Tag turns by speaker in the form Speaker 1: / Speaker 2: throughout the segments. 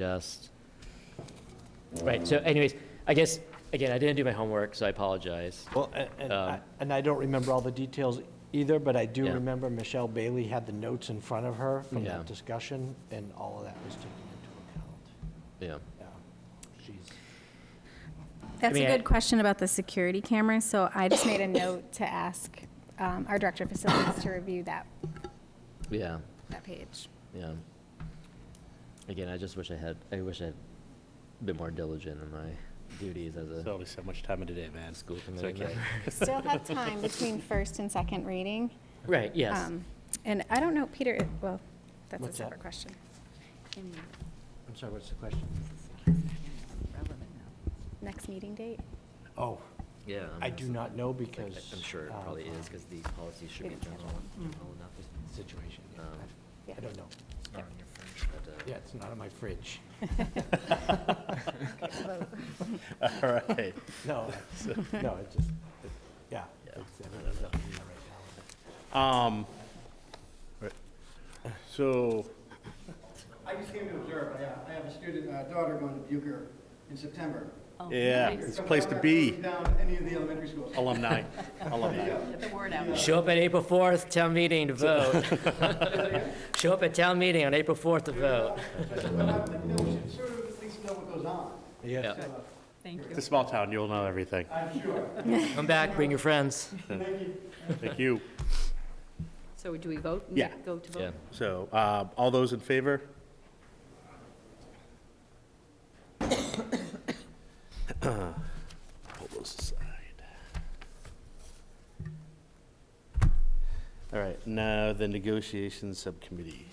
Speaker 1: suggest. Right, so anyways, I guess, again, I didn't do my homework, so I apologize.
Speaker 2: Well, a- and,
Speaker 1: Um,
Speaker 2: I- and I don't remember all the details either, but I do
Speaker 1: Yeah.
Speaker 2: remember Michelle Bailey had the notes in front of her from
Speaker 1: Yeah.
Speaker 2: that discussion, and all of that was taken into account.
Speaker 1: Yeah.
Speaker 2: Yeah, she's.
Speaker 3: That's
Speaker 1: mean,
Speaker 3: a
Speaker 1: I-
Speaker 3: good question about the security cameras, so I just made a note to ask um, our director of facilities to review that,
Speaker 1: Yeah,
Speaker 3: that page.
Speaker 1: yeah. Again, I just wish I had, I wish I had been more diligent in my duties as
Speaker 4: There's
Speaker 1: a
Speaker 4: only so much time in the day, man.
Speaker 1: school
Speaker 4: So I
Speaker 1: committee
Speaker 4: can't.
Speaker 1: member.
Speaker 3: Still have time between first and second reading.
Speaker 1: Right, yes.
Speaker 3: Um, And I don't know, Peter, it- well, that's a
Speaker 2: What's that?
Speaker 3: separate question.
Speaker 2: I'm sorry, what's the question?
Speaker 3: Next meeting date?
Speaker 2: Oh,
Speaker 1: Yeah.
Speaker 2: I do not know because.
Speaker 1: I'm sure it
Speaker 2: um,
Speaker 1: probably is, because the policy should be
Speaker 3: Maybe
Speaker 1: general, general enough.
Speaker 2: Situation, yeah.
Speaker 1: Um,
Speaker 2: I-
Speaker 3: Yeah.
Speaker 2: I don't know.
Speaker 3: Yep.
Speaker 1: but, uh,
Speaker 2: Yeah, it's not in my fridge.
Speaker 4: All right.
Speaker 2: No, no, it just, it- yeah.
Speaker 1: Yeah.
Speaker 2: it's- uh, everything's up in the air right
Speaker 4: Um, right. so,
Speaker 5: I just came to observe, I have, I have a student, uh, daughter going to Bucher in September.
Speaker 3: Oh,
Speaker 4: yeah, it's a place to be, Oh.
Speaker 5: Down any of the elementary schools.
Speaker 4: alumni, alumni.
Speaker 1: Show up at April 4th, town meeting to vote. Show up at town meeting on April 4th to vote.
Speaker 5: But, uh, you know, we should sort of at least know what goes on.
Speaker 2: now.
Speaker 1: Yeah.
Speaker 2: Yes.
Speaker 4: It's a small town, you'll know everything.
Speaker 5: I'm sure.
Speaker 1: Come back, bring your friends.
Speaker 4: Thank you.
Speaker 6: So do we vote? and
Speaker 4: Yeah.
Speaker 6: Go to
Speaker 1: Yeah.
Speaker 6: vote?
Speaker 4: So, uh, all those in favor? Pull those aside. All right, now the negotiations subcommittee.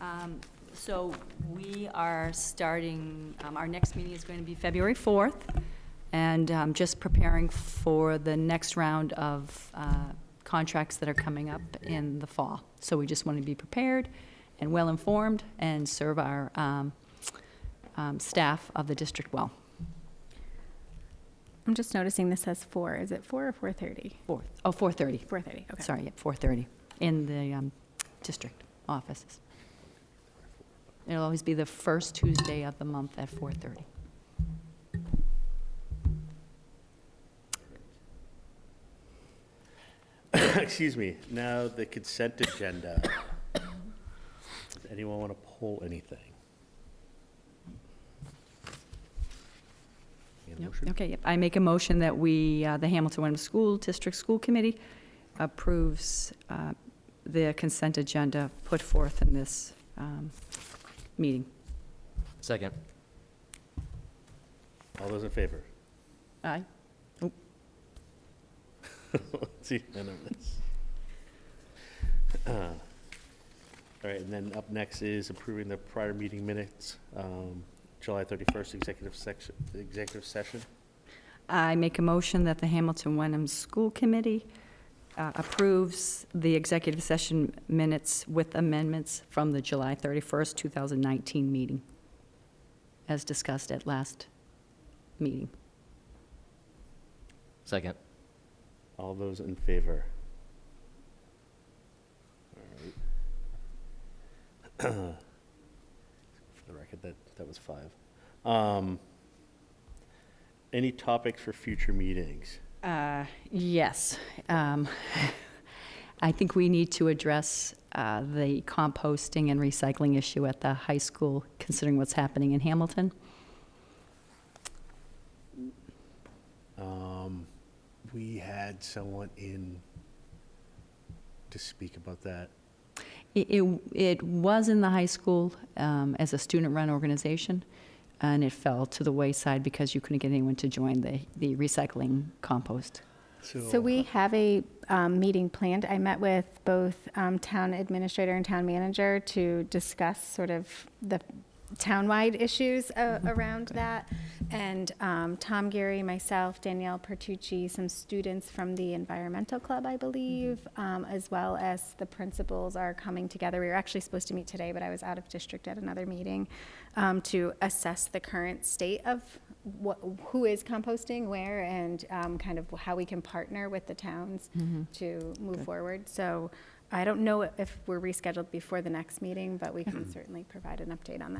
Speaker 6: Um, So we are starting, um, our next meeting is going to be February 4th, and um, just preparing for the next round of uh, contracts that are coming up in the fall. So we just want to be prepared and well-informed and serve our um, um, staff of the district well.
Speaker 3: I'm just noticing this says four. Is it four or 4:30?
Speaker 6: Four- Oh, 4:30.
Speaker 3: 4:30, okay.
Speaker 6: Sorry, at 4:30 in the um, district offices. It'll always be the first Tuesday of the month at 4:30.
Speaker 4: Excuse me, now the consent agenda. Does anyone want to pull anything? Any other
Speaker 6: Yep.
Speaker 4: motion?
Speaker 6: Okay, yep. I make a motion that we, uh, the Hamilton Wenham School District School Committee approves uh, the consent agenda put forth in this um, meeting.
Speaker 1: Second.
Speaker 4: All those in favor?
Speaker 6: Aye?
Speaker 4: It's unanimous. Uh, All right, and then up next is approving the prior meeting minutes, um, July 31st, executive section, executive session.
Speaker 6: I make a motion that the Hamilton Wenham School Committee uh, approves the executive session minutes with amendments from the July 31st, 2019 meeting, as discussed at last meeting.
Speaker 1: Second.
Speaker 4: All those in favor? All right. For the record, that, that was five. Um, Any topics for future meetings?
Speaker 6: Uh, Yes. Um, I think we need to address uh, the composting and recycling issue at the high school, considering what's happening in Hamilton.
Speaker 4: Um, we had someone in to speak about that.
Speaker 6: It, it- it was in the high school um, as a student-run organization, and it fell to the wayside because you couldn't get anyone to join the, the recycling compost.
Speaker 3: So we have a um, meeting planned. I met with both um, town administrator and town manager to discuss sort of the townwide issues a- around that. And um, Tom Gary, myself, Danielle Pertucci, some students from the environmental club, I believe, um, as well as the principals are coming together. We were actually supposed to meet today, but I was out of district at another meeting um, to assess the current state of what, who is composting where and um, kind of how we can partner with the towns to move forward. So I don't know if we're rescheduled before the next meeting, but we can certainly provide an update on that.